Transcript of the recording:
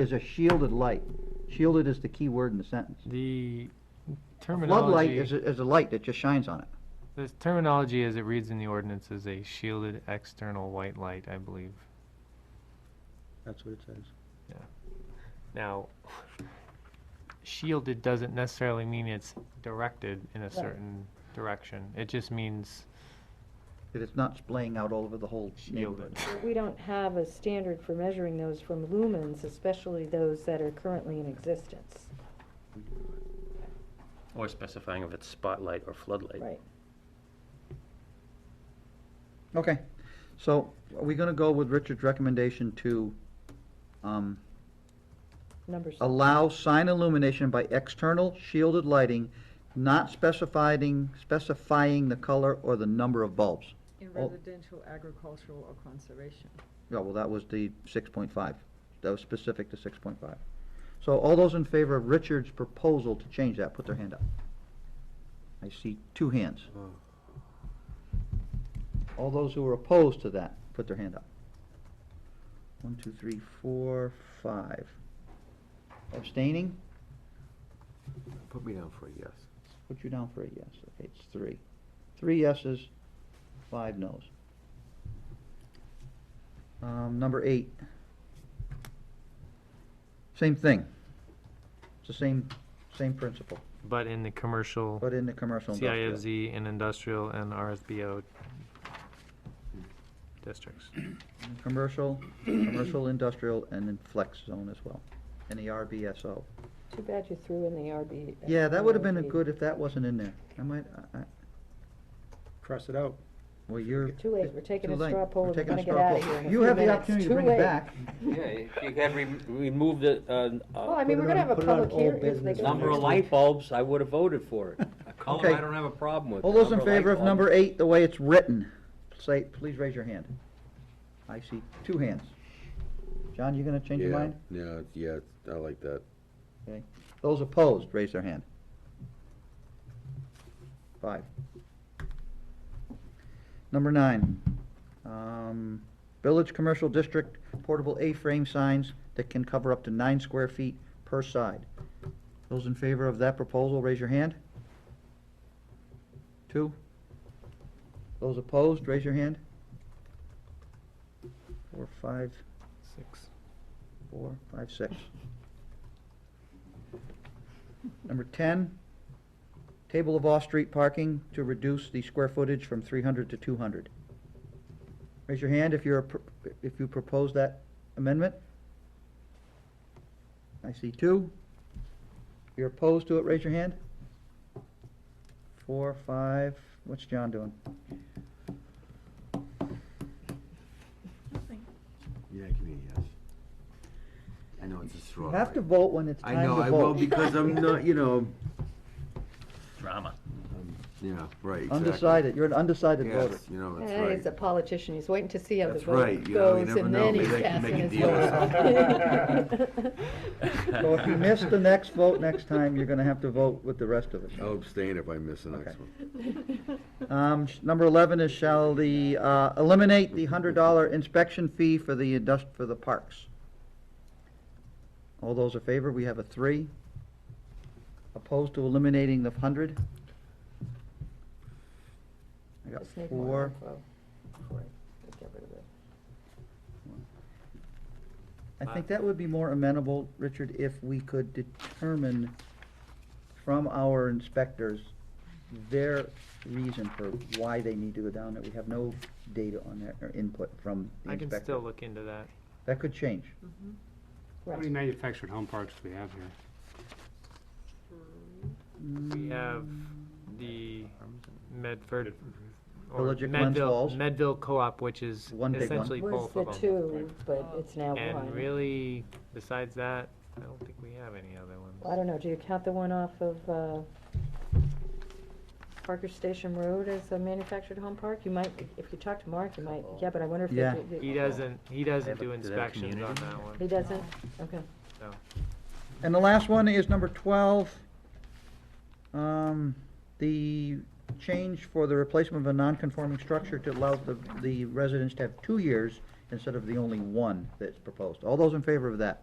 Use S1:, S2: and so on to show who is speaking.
S1: is a shielded light. Shielded is the key word in the sentence.
S2: The
S1: Floodlight is,
S2: terminology,
S1: a- is a light that just shines on it.
S2: the terminology as it reads in the ordinance is a shielded external white light, I believe.
S3: That's what it says.
S2: Now, shielded doesn't necessarily mean it's directed in a certain direction. It just means
S1: That it's not splaying out all over the whole neighborhood.
S2: shielded.
S4: We don't have a standard for measuring those from lumens, especially those that are currently in existence.
S5: Or specifying if it's spotlight or floodlight.
S4: Right.
S1: Okay, so are we gonna go with Richard's recommendation to, um,
S4: Numbers.
S1: allow sign illumination by external shielded lighting, not specifying, specifying the color or the number of bulbs?
S6: In
S1: Oh.
S6: residential, agricultural, or conservation.
S1: Yeah, well, that was the six point five. That was specific to six point five. So all those in favor of Richard's proposal to change that, put their hand up. I see two hands. All those who are opposed to that, put their hand up. One, two, three, four, five. Abstaining?
S3: Put me down for a yes.
S1: Put you down for a yes. Okay, it's three. Three yeses, five nos. Um, number eight. Same thing. It's the same, same principle,
S2: But in the commercial,
S1: but in the commercial industrial.
S2: CIFZ and industrial and RSBO
S1: Hmm.
S2: districts.
S1: In Commercial, commercial, industrial, and in flex zone as well, and the RBSO.
S4: Too bad you threw in the RB.
S1: Yeah, that would have been a
S4: RB.
S1: good if that wasn't in there. I might, I, I,
S3: Cross it out.
S1: well, you're.
S4: Too late, we're taking
S1: too
S4: a
S1: late.
S4: straw poll,
S1: We're
S4: and we're
S1: taking a
S4: gonna get
S1: straw
S4: out
S1: poll.
S4: of here in a
S1: You
S4: few
S1: have the
S4: minutes.
S1: opportunity to
S4: Too
S1: bring it
S4: late.
S1: back.
S5: Yeah, if you had re- removed the, uh,
S4: Well,
S5: uh,
S4: I mean,
S3: Put it
S4: we're gonna
S3: on-
S4: have a
S3: put it on
S4: public
S3: old
S4: hearing. if they
S3: business.
S4: go
S5: number
S4: next week.
S5: of light bulbs, I would have voted for it. A column,
S1: Okay.
S5: I don't have a problem with.
S1: All those in
S5: Number of light
S1: favor of
S5: bulbs.
S1: number eight, the way it's written, say, please raise your hand. I see two hands. John, you gonna change your
S7: Yeah,
S1: mind?
S7: Yeah, yeah, I like that.
S1: Those opposed, raise their hand. Five. Number nine, um, village commercial district portable A-frame signs that can cover up to nine square feet per side. Those in favor of that proposal, raise your hand. Two. Those opposed, raise your hand. Four, five,
S2: Six.
S1: four, five, six. Number ten, table of off-street parking to reduce the square footage from three hundred to two hundred. Raise your hand if you're, appro- if you propose that amendment. I see two. If you're opposed to it, raise your hand. Four, five, what's John doing?
S7: Yeah, give me a yes. I know it's a straw.
S1: You have to vote when it's time
S7: I
S1: to
S7: know,
S1: vote.
S7: I will, because I'm not, you know,
S5: Drama.
S7: yeah, right, exactly.
S1: Undecided, you're an undecided voter.
S7: Yes, you know, that's
S4: Hey, He's a
S7: right.
S4: politician, he's waiting to see how the
S7: That's
S4: vote
S7: right, you know,
S4: goes,
S7: you never
S4: and
S7: know,
S4: then
S7: maybe
S4: he's
S7: they can
S4: casting
S7: make a
S4: his
S7: deal or
S4: vote.
S1: So if you miss the next vote next time, you're gonna have to vote with the rest of us.
S7: I'll abstain if I miss the next
S1: Okay.
S7: one.
S1: Um, sh- number eleven is shall the, uh, eliminate the hundred dollar inspection fee for the indust, for the parks. All those in favor, we have a three. Opposed to eliminating the hundred? I got
S4: Just need more
S1: four.
S4: info before I get rid of it.
S1: I
S2: Uh,
S1: think that would be more amenable, Richard, if we could determine from our inspectors their reason for why they need to go down there. We have no data on that or input from the
S2: I can
S1: inspector.
S2: still look into that.
S1: That could change.
S8: How many manufactured home parks do we have here?
S2: We have the Medford. or
S1: Village at Glens
S2: Medville-
S1: Falls.
S2: Medville Co-op, which is
S1: One big one.
S2: essentially
S4: Was
S2: both
S4: the
S2: of them.
S4: two, but it's now
S2: And
S4: one.
S2: really, besides that, I don't think we have any other ones.
S4: I don't know, do you count the one off of, uh, Parker Station Road as a manufactured home park? You might, if you talk to Mark, you might, yeah, but I wonder if.
S1: Yeah.
S4: they-
S2: He doesn't, he doesn't
S5: They
S2: do
S5: have a- do they have
S2: inspections on
S5: community?
S2: that
S4: He
S2: one,
S4: doesn't? Okay.
S2: so.
S1: And the last one is number twelve. Um, the change for the replacement of a non-conforming structure to allow the, the residents to have two years instead of the only one that's proposed. All those in favor of that?